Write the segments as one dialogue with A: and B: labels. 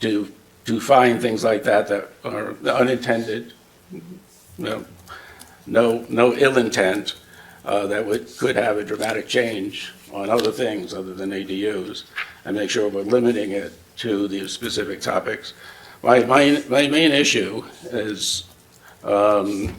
A: to, to find things like that that are unintended, no, no, no ill intent, uh, that would, could have a dramatic change on other things other than ADUs, and make sure we're limiting it to the specific topics. My, my, my main issue is, um,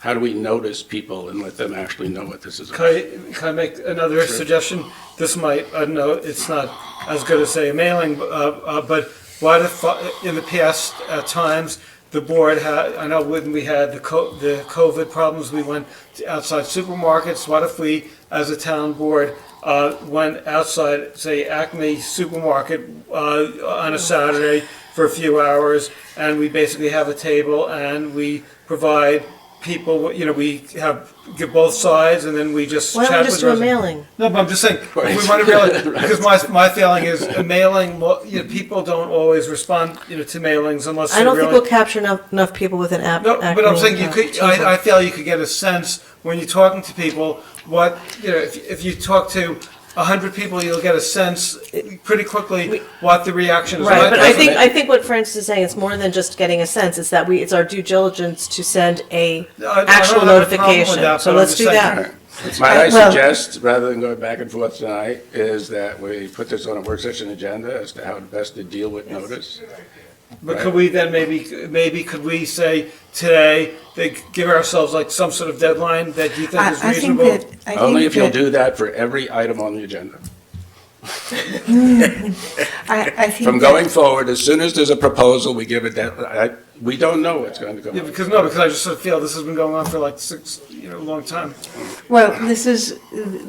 A: how do we notice people and let them actually know what this is
B: Can
A: about?
B: I, can I make another suggestion? This might, I don't know, it's not as good as say a mailing, uh, uh, but why the, fu- in the past, at times, the board had, I know when we had the co- the COVID problems, we went to outside supermarkets, what if we, as a town board, uh, went outside, say Acme supermarket, uh, on a Saturday for a few hours, and we basically have a table and we provide people, you know, we have, give both sides and then we just
C: Why
B: chat
C: don't we
B: with.
C: just do a
B: residents.
C: mailing?
B: No, but I'm just saying,
A: Right.
B: we want to really,
A: Right.
B: because my, my feeling is a mailing, well, you know, people don't always respond, you know, to mailings unless
C: I
B: they
C: don't think we'll
B: really.
C: capture enough, enough people with an app.
B: No, but I'm
C: Acme,
B: saying you
C: uh,
B: could,
C: table.
B: I, I feel you could get a sense when you're talking to people, what, you know, if, if you talk to a hundred people, you'll get a sense pretty quickly what the reaction is.
C: Right,
B: like.
C: but I
A: that's
C: think,
A: what
C: I think what Francis is saying, it's more than just getting a sense, it's that we, it's our due diligence to send
B: I-
C: a
B: I don't have a
C: actual
B: problem with
C: notification,
B: that, but
C: so
B: I'm
C: let's
B: just
C: do
B: saying-
C: that.
A: My, I
C: Uh, well-
A: suggest, rather than going back and forth tonight, is that we put this on a work session agenda as to how best to deal with notice.
B: But could we then maybe, maybe could we say today, they give ourselves like some sort of deadline that you think
D: I,
B: is
D: I think
B: reasonable?
D: that, I
A: Only
D: think
A: if you'll
D: that-
A: do that for every item on the agenda.
D: I, I think
A: From
D: that-
A: going forward, as soon as there's a proposal, we give a deadline. We don't know what's going to come
B: Yeah,
A: up.
B: because no, because I just sort of feel this has been going on for like six, you know, a long time.
D: Well, this is,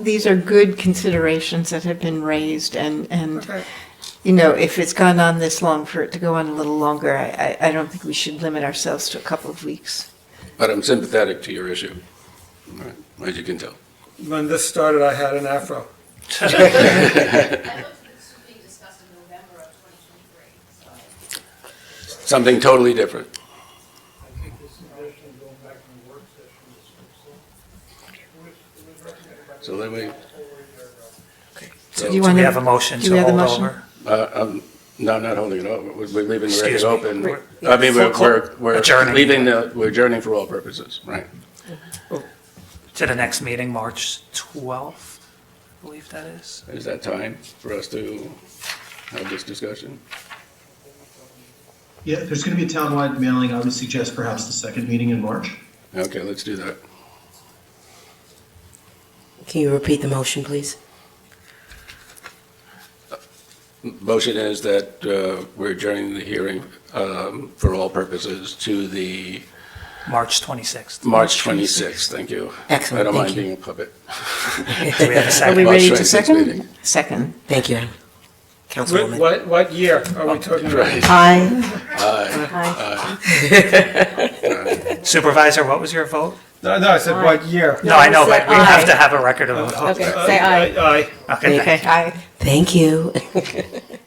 D: these are good considerations that have been raised and, and,
B: Okay.
D: you know, if it's gone on this long, for it to go on a little longer, I, I, I don't think we should limit ourselves to a couple of weeks.
A: But I'm sympathetic to your issue, Right, as you can tell.
B: When this started, I had an afro.
E: I thought this was being discussed in November of 2023, so.
A: Something totally different. So then we,
D: So
A: So
D: do you
F: Do
D: want
F: we have a
D: to,
F: motion
D: do we
F: to
D: have a
F: hold
D: motion?
F: over?
A: uh, um, no, I'm not holding it over. We're we're leaving the
F: Excuse
A: record
F: me.
A: open. I mean, we're,
F: Full
A: we're,
F: clo-
A: we're
F: adjourning.
A: leaving the, we're adjourning for all purposes, right?
F: To the next meeting, March 12th, I believe that is.
A: Is that time for us to have this discussion?
G: Yeah, if there's going to be a townwide mailing, I would suggest perhaps the second meeting in March.
A: Okay, let's do that.
C: Can you repeat the motion, please?
A: Motion is that uh, we're adjourning the hearing um, for all purposes to the
F: March 26th.
A: March 26th, thank you.
C: Excellent,
A: I don't
C: thank
A: mind
C: you.
A: being a puppet.
F: Do we
D: are
F: have a
D: we
F: second?
A: March
D: ready to
A: 26th
D: second?
A: meeting.
D: Second.
C: Thank you,
B: What, what, what year are we talking about?
A: Right.
C: Aye.
F: Supervisor, what was your vote?
B: No, no, I said what year.
F: No, I know,
C: I said
F: but we have
C: aye.
B: Uh,
F: to have a record of a vote.
C: Okay, say aye.
B: Aye.
F: Okay,
D: Okay, aye.
C: Thank you.